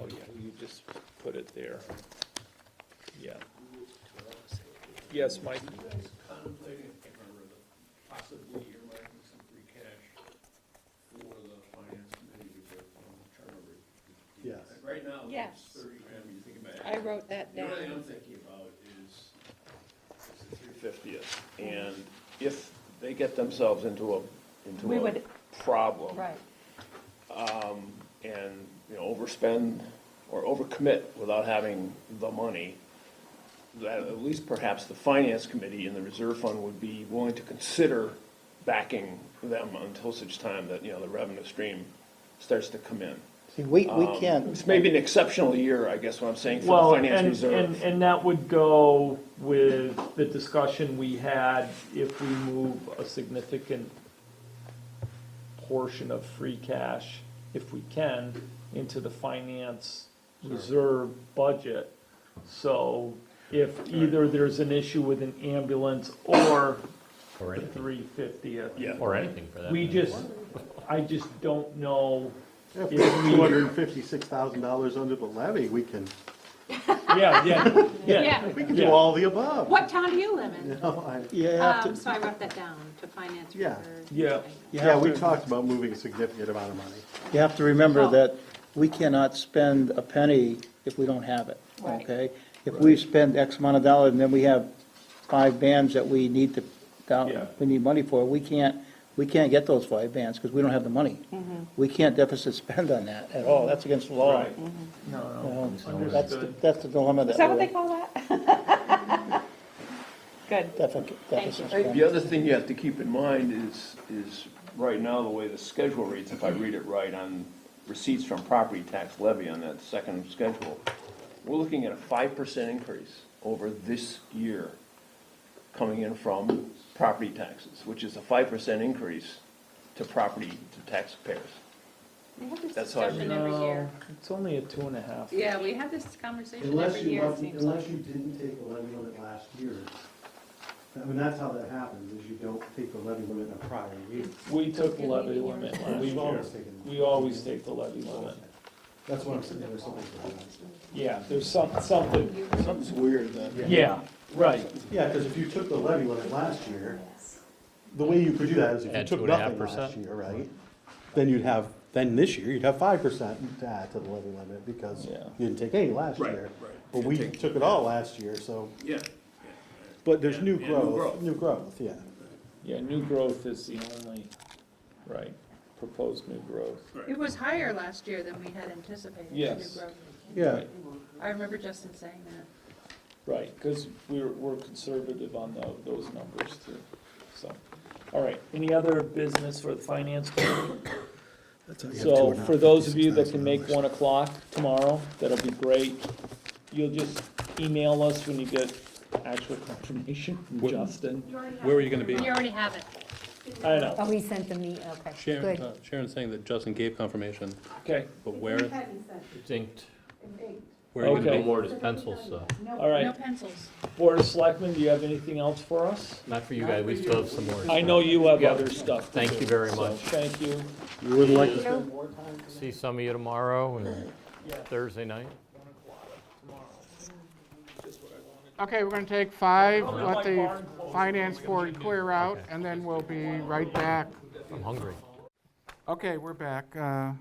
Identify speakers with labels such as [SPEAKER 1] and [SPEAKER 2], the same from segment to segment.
[SPEAKER 1] Oh, yeah, you just put it there. Yeah. Yes, Mike?
[SPEAKER 2] You guys contemplating, I can't remember, the possibly earmarking some free cash for the finance committee to get on the turnover?
[SPEAKER 3] Yes.
[SPEAKER 2] Like, Right now,
[SPEAKER 4] Yes.
[SPEAKER 2] it's thirty grand, when you think about it.
[SPEAKER 4] I wrote that
[SPEAKER 2] The
[SPEAKER 4] down.
[SPEAKER 2] only thing I'm thinking about is, is the three
[SPEAKER 1] Fiftieth, and if they get themselves into a,
[SPEAKER 4] We
[SPEAKER 1] into a
[SPEAKER 4] would-
[SPEAKER 1] problem.
[SPEAKER 4] Right,
[SPEAKER 1] And, you know, overspend or overcommit without having the money, that at least perhaps the finance committee and the reserve fund would be willing to consider backing them until such time that, you know, the revenue stream starts to come in.
[SPEAKER 3] See, we, we
[SPEAKER 1] Um,
[SPEAKER 3] can't,
[SPEAKER 1] It's maybe an exceptional year, I guess what I'm saying,
[SPEAKER 5] Well,
[SPEAKER 1] for the
[SPEAKER 5] and,
[SPEAKER 1] finance reserve.
[SPEAKER 5] and, and that would go with the discussion we had if we move a significant portion of free cash, if we can, into the finance reserve budget. So if either there's an issue with an ambulance or
[SPEAKER 6] Or
[SPEAKER 5] the
[SPEAKER 6] anything,
[SPEAKER 5] three fiftieth.
[SPEAKER 1] Yeah.
[SPEAKER 6] or anything for that.
[SPEAKER 5] We
[SPEAKER 6] matter.
[SPEAKER 5] just, I just don't know if we.
[SPEAKER 7] Two hundred and fifty-six thousand dollars under the levy, we can,
[SPEAKER 5] Yeah, yeah, yeah.
[SPEAKER 4] yeah.
[SPEAKER 7] we can
[SPEAKER 5] Yeah.
[SPEAKER 7] do all the above.
[SPEAKER 8] What town do you live in?
[SPEAKER 7] No, I-
[SPEAKER 3] you have
[SPEAKER 8] Um,
[SPEAKER 3] to,
[SPEAKER 8] so I wrote that down to finance
[SPEAKER 7] Yeah.
[SPEAKER 8] reserve.
[SPEAKER 5] Yeah.
[SPEAKER 3] you
[SPEAKER 7] Yeah,
[SPEAKER 3] have
[SPEAKER 7] we
[SPEAKER 3] to,
[SPEAKER 7] talked about moving a significant amount of money.
[SPEAKER 3] you have to remember that we cannot spend a penny if we don't have it,
[SPEAKER 4] Right.
[SPEAKER 3] okay? If we spend X amount of dollars and then we have five bands that we need to,
[SPEAKER 5] Yeah.
[SPEAKER 3] that we need money for, we can't, we can't get those five bands because we don't have the money. We can't deficit spend on that at all, that's against the law.
[SPEAKER 5] Right.
[SPEAKER 3] you know?
[SPEAKER 5] Understood.
[SPEAKER 3] That's, the- that's the dilemma that
[SPEAKER 4] Is that what
[SPEAKER 3] we're
[SPEAKER 4] they
[SPEAKER 3] in.
[SPEAKER 4] call that? Good.
[SPEAKER 3] Deficit- deficit
[SPEAKER 8] you.
[SPEAKER 3] spend.
[SPEAKER 1] The other thing you have to keep in mind is, is right now, the way the schedule reads, if I read it right, on receipts from property tax levy on that second schedule, we're looking at a five percent increase over this year coming in from property taxes, which is a five percent increase to property, to taxpayers.
[SPEAKER 8] We have this
[SPEAKER 1] That's how I
[SPEAKER 8] discussion
[SPEAKER 1] read
[SPEAKER 8] every year.
[SPEAKER 5] It's only a two and a half.
[SPEAKER 8] Yeah, we have this conversation
[SPEAKER 9] Unless
[SPEAKER 8] every
[SPEAKER 9] you,
[SPEAKER 8] year, it
[SPEAKER 9] want-
[SPEAKER 8] seems like.
[SPEAKER 9] unless you didn't take the levy limit last year. I mean, that's how that happens, is you don't take the levy limit in a prior year.
[SPEAKER 5] We took the levy limit last
[SPEAKER 9] We've
[SPEAKER 5] year.
[SPEAKER 9] always taken-
[SPEAKER 5] We always take the levy limit.
[SPEAKER 9] That's what I'm saying, there's something for that.
[SPEAKER 5] Yeah, there's some, something,
[SPEAKER 1] Something's weird then.
[SPEAKER 5] yeah, right.
[SPEAKER 9] Yeah, because if you took the levy limit last year, the way you could do that is if you
[SPEAKER 6] Add
[SPEAKER 9] took
[SPEAKER 6] two and a half
[SPEAKER 9] nothing last
[SPEAKER 6] percent.
[SPEAKER 9] year, right? Then you'd have, then this year, you'd have five percent to add to the levy limit because you
[SPEAKER 5] Yeah.
[SPEAKER 9] didn't take any last
[SPEAKER 2] Right,
[SPEAKER 9] year.
[SPEAKER 2] right.
[SPEAKER 9] But we took it all last year, so,
[SPEAKER 2] Yeah,
[SPEAKER 9] but there's new
[SPEAKER 2] Yeah, new growth.
[SPEAKER 9] growth, new growth, yeah.
[SPEAKER 5] Yeah, new growth is the only, right, proposed new growth.
[SPEAKER 2] right.
[SPEAKER 8] It was higher last year than we had anticipated. the new
[SPEAKER 5] Yes.
[SPEAKER 8] growth.
[SPEAKER 9] Yeah.
[SPEAKER 8] I remember Justin saying that.
[SPEAKER 5] Right, because we're, we're conservative on tho- those numbers too, so. All right, any other business for the finance committee? So for those of you that can make one o'clock tomorrow, that'll be great. You'll just email us when you get actual confirmation from
[SPEAKER 6] What-
[SPEAKER 5] Justin.
[SPEAKER 6] Where were you gonna be?
[SPEAKER 8] You already have it.
[SPEAKER 5] I know,
[SPEAKER 10] Oh, we sent them the, okay,
[SPEAKER 11] Sharon,
[SPEAKER 10] good.
[SPEAKER 11] uh, Sharon's saying that Justin gave confirmation,
[SPEAKER 5] okay,
[SPEAKER 11] but where,
[SPEAKER 6] It's inked.
[SPEAKER 11] where are you
[SPEAKER 5] Okay.
[SPEAKER 11] gonna
[SPEAKER 6] No
[SPEAKER 11] be?
[SPEAKER 6] more just pencils, so,
[SPEAKER 5] all
[SPEAKER 8] No
[SPEAKER 5] right.
[SPEAKER 8] pencils.
[SPEAKER 5] Board of Selectmen, do you have anything else for us?
[SPEAKER 6] not for you guys, we still have some more.
[SPEAKER 5] I know you have
[SPEAKER 6] Yeah.
[SPEAKER 5] other stuff to
[SPEAKER 6] Thank
[SPEAKER 5] do,
[SPEAKER 6] you very
[SPEAKER 5] so
[SPEAKER 6] much.
[SPEAKER 5] Thank you.
[SPEAKER 9] You wouldn't like to
[SPEAKER 10] So,
[SPEAKER 6] See some of you tomorrow and Thursday night.
[SPEAKER 12] Okay, we're gonna take five,
[SPEAKER 5] Oh, my
[SPEAKER 12] let the
[SPEAKER 5] barn closed.
[SPEAKER 12] finance board clear out,
[SPEAKER 6] Okay.
[SPEAKER 12] and then we'll be right back.
[SPEAKER 6] I'm hungry.
[SPEAKER 12] Okay, we're back. Uh,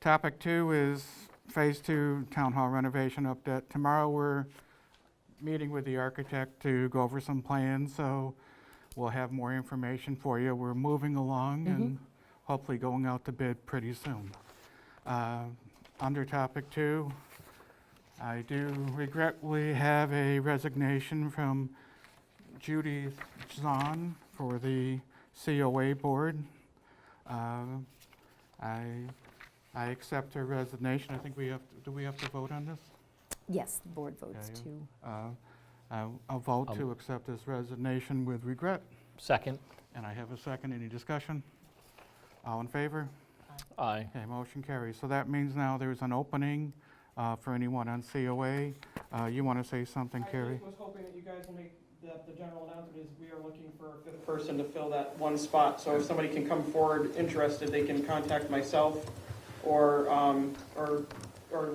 [SPEAKER 12] Topic two is Phase Two Town Hall renovation update. Tomorrow, we're meeting with the architect to go over some plans, so we'll have more information for you. We're moving along and hopefully going out to bid pretty soon. Uh, Under topic two, I do regretfully have a resignation from Judy Zahn for the COA Board. Uh, I, I accept her resignation. I think we have, to- do we have to vote on this?
[SPEAKER 10] Yes, the board votes
[SPEAKER 12] Yeah,
[SPEAKER 10] to,
[SPEAKER 12] Uh, I- I'll vote to accept this resignation with regret,
[SPEAKER 6] Second,
[SPEAKER 12] and I have a second. Any discussion? All in favor?
[SPEAKER 6] aye.
[SPEAKER 12] Okay, motion carries. So that means now there's an opening uh, for anyone on COA. Uh, You want to say something, Carrie?
[SPEAKER 13] was hoping that you guys will make, that the general announcement is we are looking for a fifth person to fill that one spot. So if somebody can come forward interested, they can contact myself or, um, or, or